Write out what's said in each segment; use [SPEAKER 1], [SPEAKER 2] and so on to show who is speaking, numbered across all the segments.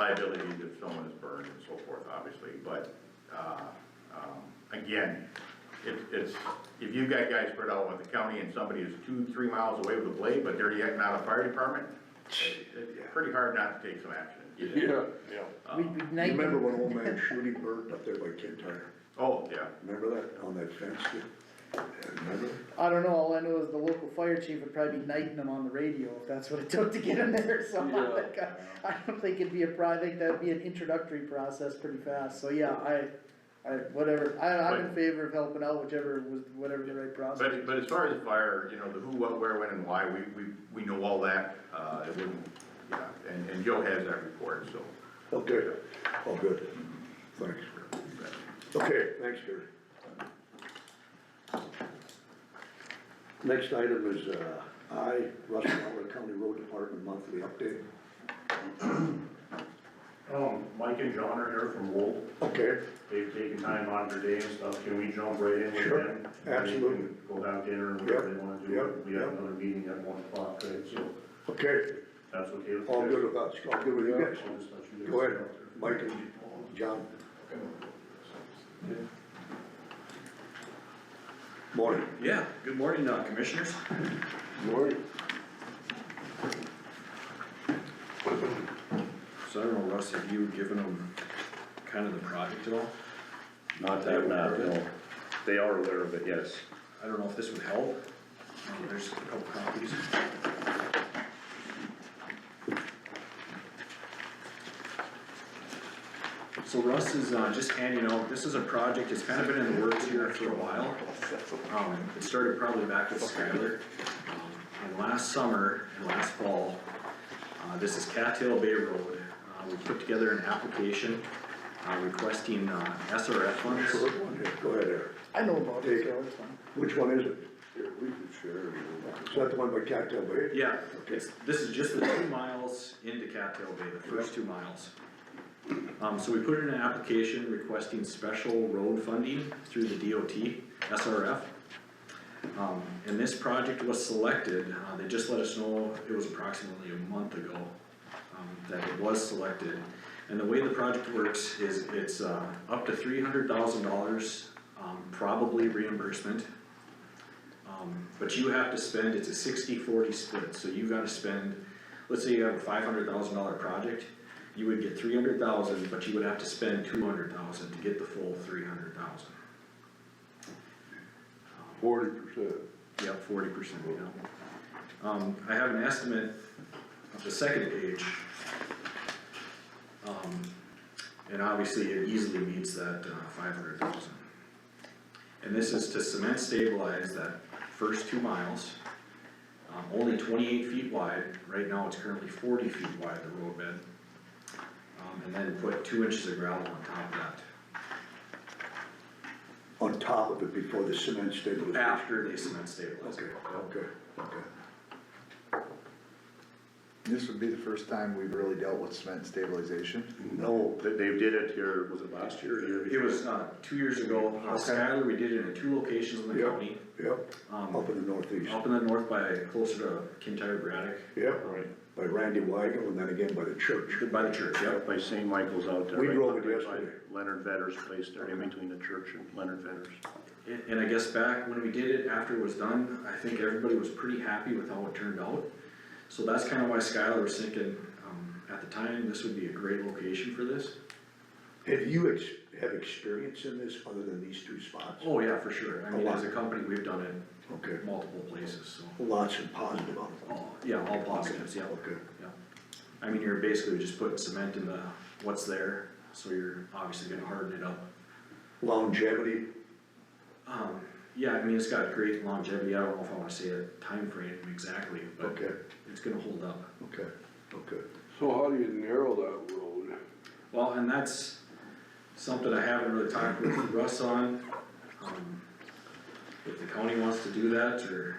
[SPEAKER 1] liability if someone is burned and so forth, obviously, but, uh, um, again, it, it's, if you've got guys spread out with the county and somebody is two, three miles away with a blade, but they're yet not a fire department, it- it's pretty hard not to take some action.
[SPEAKER 2] Yeah.
[SPEAKER 3] We'd be
[SPEAKER 4] You
[SPEAKER 3] nice,
[SPEAKER 4] Remember when old man Shooty burnt up there by Tin Tire?
[SPEAKER 1] Oh, yeah,
[SPEAKER 4] Remember that, on that fence? there? Remember?
[SPEAKER 3] I don't know, all I know is the local fire chief would probably be knighting them on the radio, if that's what it took to get him there, so I
[SPEAKER 2] Yeah.
[SPEAKER 3] think, uh, I don't think it'd be a pro, I think that'd be an introductory process pretty fast, so yeah, I, I, whatever, I, I'm in favor of helping out whichever was, whatever the right process.
[SPEAKER 1] but, but as far as fire, you know, the who, what, where, when, and why, we, we, we know all that, uh, it wouldn't, yeah, and, and Joe has that report, so.
[SPEAKER 4] Oh, good, oh, good, thanks. Okay, thanks, Gary. Next item is, uh, I, Russell Howard County Road Department monthly update.
[SPEAKER 5] Um, Mike and John are here from Wold,
[SPEAKER 4] Okay,
[SPEAKER 5] they've taken time out of their day and stuff, can we jump right in with them?
[SPEAKER 4] Sure,
[SPEAKER 5] And they can
[SPEAKER 4] absolutely.
[SPEAKER 5] Go down dinner and whatever they wanna do,
[SPEAKER 4] Yep,
[SPEAKER 5] we have
[SPEAKER 4] yep.
[SPEAKER 5] another meeting at one o'clock, right, so
[SPEAKER 4] okay,
[SPEAKER 5] that's okay with you
[SPEAKER 4] all
[SPEAKER 5] guys?
[SPEAKER 4] good with us, all good with you guys?
[SPEAKER 5] I'll just let you guys
[SPEAKER 4] Go ahead,
[SPEAKER 5] know.
[SPEAKER 4] Mike and John. Morning.
[SPEAKER 6] Yeah, good morning, uh, commissioners.
[SPEAKER 4] Morning.
[SPEAKER 6] So I don't know, Russ, have you given them kind of the project at all?
[SPEAKER 7] Not that, not, no, they are aware of it, yes.
[SPEAKER 6] I don't know if this would help. Uh, There's a couple copies. So Russ is, uh, just handing out, this is a project, it's kind of been in the works here for a while. Um, it started probably back with Skylar. Um, And last summer and last fall, uh, this is Cattail Bay Road. Uh, we put together an application, uh, requesting, uh, SRF funds.
[SPEAKER 4] Short one here, go ahead, Eric.
[SPEAKER 3] I know about it, so it's fine.
[SPEAKER 4] Which one is it? we can share. Is that the one by Cactus Bay?
[SPEAKER 6] Yeah, it's, this is just the two miles into Cattail Bay, the first two miles. Um, so we put in an application requesting special road funding through the DOT, SRF. Um, and this project was selected, uh, they just let us know, it was approximately a month ago, um, that it was selected. And the way the project works is it's, uh, up to three hundred thousand dollars, um, probably reimbursement. Um, but you have to spend, it's a 60-40 split, so you gotta spend, let's say you have a five hundred thousand dollar project, you would get three hundred thousand, but you would have to spend two hundred thousand to get the full three hundred thousand.
[SPEAKER 2] Forty percent.
[SPEAKER 6] Yep, forty percent, yeah. Um, I have an estimate of the second page. Um, and obviously it easily meets that, uh, five hundred thousand. And this is to cement stabilize that first two miles, um, only twenty-eight feet wide, right now it's currently forty feet wide, the road bed. Um, and then put two inches of gravel on top of that.
[SPEAKER 4] On top of it before the cement stabilization.
[SPEAKER 6] After they cement stabilize.
[SPEAKER 4] Okay,
[SPEAKER 6] it.
[SPEAKER 4] okay, okay.
[SPEAKER 8] This would be the first time we've really dealt with cement stabilization.
[SPEAKER 4] No,
[SPEAKER 7] They, they did it here, was it last year or the year
[SPEAKER 6] It
[SPEAKER 7] before?
[SPEAKER 6] was, uh, two years ago, uh, Skyler, we did it in two locations in the
[SPEAKER 4] Yeah.
[SPEAKER 6] county,
[SPEAKER 4] yep, up
[SPEAKER 6] um,
[SPEAKER 4] in the northeast,
[SPEAKER 6] up in the north by, closer to Kintyre Braddock,
[SPEAKER 4] yep,
[SPEAKER 7] Right,
[SPEAKER 4] by Randy Weigel and then again by the church.
[SPEAKER 6] by the church, yep.
[SPEAKER 7] by St. Michael's out there.
[SPEAKER 4] We
[SPEAKER 7] right
[SPEAKER 4] drove it
[SPEAKER 7] by
[SPEAKER 4] yesterday.
[SPEAKER 7] Leonard Vedder's place there, in between the church and Leonard Vedder's.
[SPEAKER 6] And, and I guess back when we did it, after it was done, I think everybody was pretty happy with how it turned out. So that's kinda why Skylar was thinking, um, at the time, this would be a great location for this.
[SPEAKER 4] Have you ex, have experience in this other than these two spots?
[SPEAKER 6] Oh, yeah, for sure, I
[SPEAKER 4] A
[SPEAKER 6] mean,
[SPEAKER 4] lot.
[SPEAKER 6] as a company, we've done it
[SPEAKER 4] Okay,
[SPEAKER 6] multiple places, so,
[SPEAKER 4] lots of positive on it.
[SPEAKER 6] all, yeah, all positives, yeah.
[SPEAKER 4] Okay,
[SPEAKER 6] Yeah, I mean, you're basically just putting cement in the, what's there, so you're obviously gonna harden it up.
[SPEAKER 4] longevity,
[SPEAKER 6] Um, yeah, I mean, it's got great longevity, I don't know if I wanna say a time frame exactly, but
[SPEAKER 4] okay,
[SPEAKER 6] it's gonna hold up.
[SPEAKER 4] okay, okay.
[SPEAKER 2] So how do you narrow that road?
[SPEAKER 6] Well, and that's something I haven't really talked with Russ on, um, if the county wants to do that, or,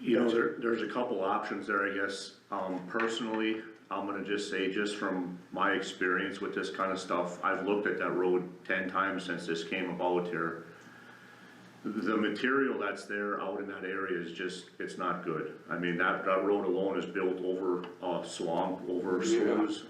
[SPEAKER 7] You know, there, there's a couple options there, I guess. Um, personally, I'm gonna just say, just from my experience with this kind of stuff, I've looked at that road ten times since this came about here. The material that's there out in that area is just, it's not good. I mean, that, that road alone is built over, uh, swamp, over sloughs.